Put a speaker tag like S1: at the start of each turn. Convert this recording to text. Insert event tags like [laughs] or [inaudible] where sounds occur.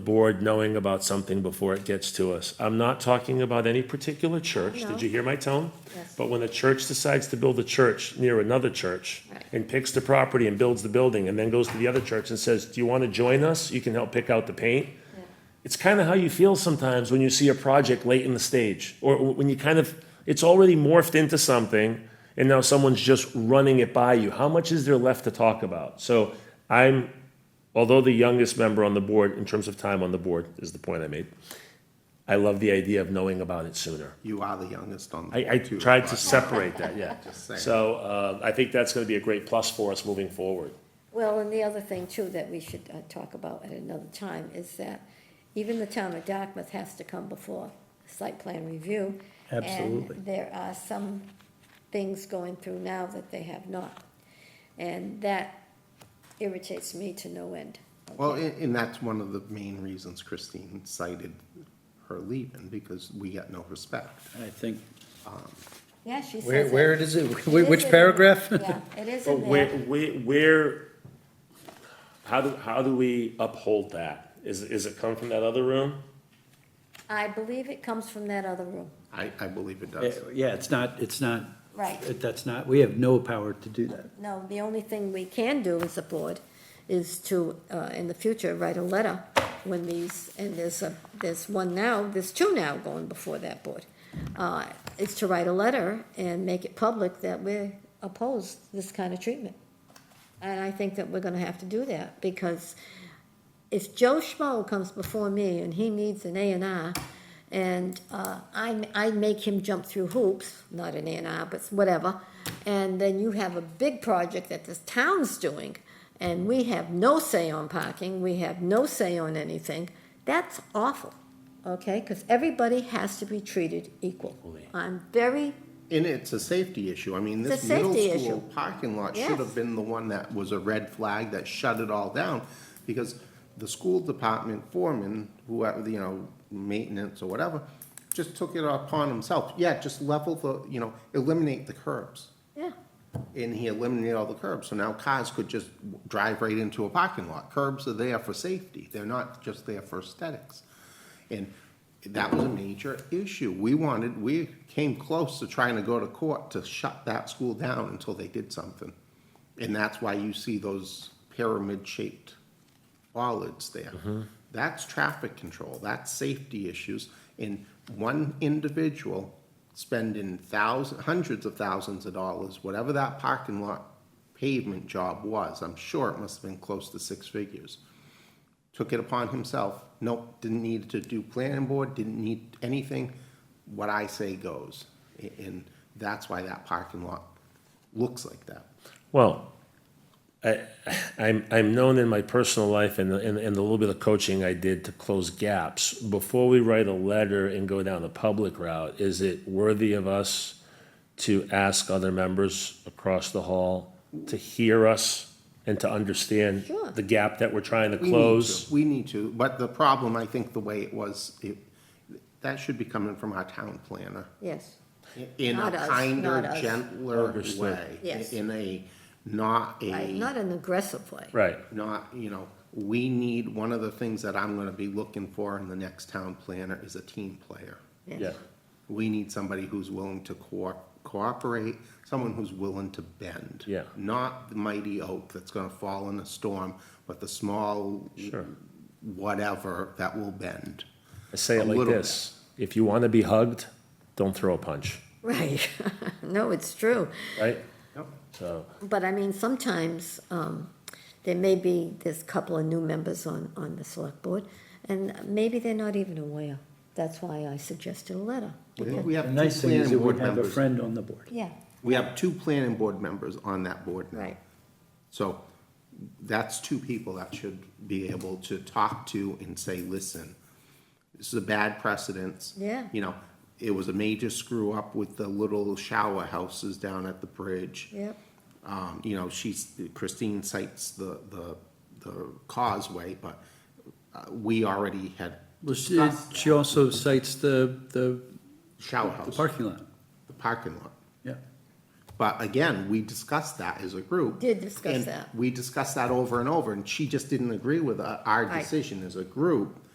S1: board knowing about something before it gets to us. I'm not talking about any particular church. Did you hear my tone?
S2: Yes.
S1: But when a church decides to build a church near another church
S2: Right.
S1: and picks the property and builds the building and then goes to the other church and says, do you want to join us? You can help pick out the paint. It's kind of how you feel sometimes when you see a project late in the stage or when you kind of, it's already morphed into something and now someone's just running it by you. How much is there left to talk about? So I'm although the youngest member on the board, in terms of time on the board, is the point I made, I love the idea of knowing about it sooner.
S3: You are the youngest on the.
S1: I, I
S3: board, too,
S1: tried to
S3: but-
S1: separate that, [laughs] yeah.
S3: Just saying.
S1: So, uh, I think that's gonna be a great plus for us moving forward.
S2: Well, and the other thing too that we should uh, talk about at another time is that even the town of Dartmouth has to come before site plan review.
S4: Absolutely.
S2: And there are some things going through now that they have not. And that irritates me to no end.
S3: Well, and, and that's one of the main reasons Christine cited her leaving, because we got no respect.
S4: I think,
S2: Yeah, she says.
S4: where,
S2: it.
S4: where is it?
S2: It is
S4: Which
S2: in-
S4: paragraph? [laughs]
S2: Yeah, it is
S1: But
S2: in
S1: where,
S2: there.
S1: where, where, how do, how do we uphold that? Is, is it come from that other room?
S2: I believe it comes from that other room.
S3: I, I believe it does.
S4: Eh, Yeah, it's not, it's not.
S2: Right.
S4: That's not, we have no power to do that.
S2: No, the only thing we can do as a board is to, uh, in the future, write a letter when these, and there's a, there's one now, there's two now going before that board. Uh, is to write a letter and make it public that we oppose this kind of treatment. And I think that we're gonna have to do that, because if Joe Schmo comes before me and he needs an A and R, and uh, I, I make him jump through hoops, not an A and R, but whatever, and then you have a big project that this town's doing, and we have no say on parking, we have no say on anything, that's awful, okay? Because everybody has to be treated equal. I'm very,
S3: And it's a safety issue. I mean,
S2: It's
S3: this
S2: a
S3: middle
S2: safety
S3: school
S2: issue.
S3: parking lot should
S2: Yes.
S3: have been the one that was a red flag that shut it all down. Because the school department foreman, whoever, you know, maintenance or whatever, just took it upon himself. Yeah, just level the, you know, eliminate the curbs.
S2: yeah,
S3: and he eliminated all the curbs, so now cars could just drive right into a parking lot. Curbs are there for safety, they're not just there for aesthetics. And that was a major issue. We wanted, we came close to trying to go to court to shut that school down until they did something. And that's why you see those pyramid-shaped bollards there. That's traffic control, that's safety issues, and one individual spending thousands, hundreds of thousands of dollars, whatever that parking lot pavement job was, I'm sure it must have been close to six figures. Took it upon himself, nope, didn't need to do planning board, didn't need anything, what I say goes. A- And that's why that parking lot looks like that.
S1: Well, I, I'm, I'm known in my personal life and, the- and, and the little bit of coaching I did to close gaps. Before we write a letter and go down the public route, is it worthy of us to ask other members across the hall to hear us and to understand
S2: Sure.
S1: the gap that we're trying to
S3: We need to.
S1: close?
S3: We need to, but the problem, I think, the way it was, it, that should be coming from our town planner.
S2: yes.
S3: In
S2: Not us, not
S3: a kinder,
S2: us.
S3: gentler
S1: Understood.
S3: way.
S2: Yes.
S3: In a, not
S2: Right,
S3: a,
S2: not an aggressive way.
S1: Mm. Right.
S3: not, you know, we need, one of the things that I'm gonna be looking for in the next town planner is a team player.
S1: Yeah.
S3: We need somebody who's willing to co- cooperate, someone who's willing to bend.
S1: Yeah.
S3: Not the mighty oak that's gonna fall in a storm, but the small
S1: Sure.
S3: whatever that will bend.
S1: I say
S3: A
S1: it like
S3: little
S1: this. If you want to be hugged, don't throw a punch,
S2: Right, [laughs] no, it's true.
S1: right?
S3: Yep.
S1: So,
S2: But I mean, sometimes, um, there may be, there's a couple of new members on, on the select board, and maybe they're not even aware. That's why I suggested a letter.
S3: I think we have
S4: The
S3: two
S4: nice thing is
S3: planning
S4: it
S3: board
S4: would have a
S3: members.
S4: friend on the board.
S2: Yeah,
S3: We have two planning board members on that board now.
S2: right,
S3: So that's two people that should be able to talk to and say, listen, this is a bad precedence.
S2: Yeah.
S3: You know, it was a major screw up with the little shower houses down at the bridge.
S2: yep,
S3: Um, you know, she's, Christine cites the, the, the causeway, but uh, we already had
S4: Well, she, she also cites the, the
S3: shower
S4: the
S3: house, the
S4: parking lot,
S3: parking lot.
S4: yeah.
S3: But again, we discussed that as a group.
S2: Did discuss
S3: And
S2: that.
S3: We discussed that over and over, and she just didn't agree with uh, our, our
S2: Right.
S3: decision as a group.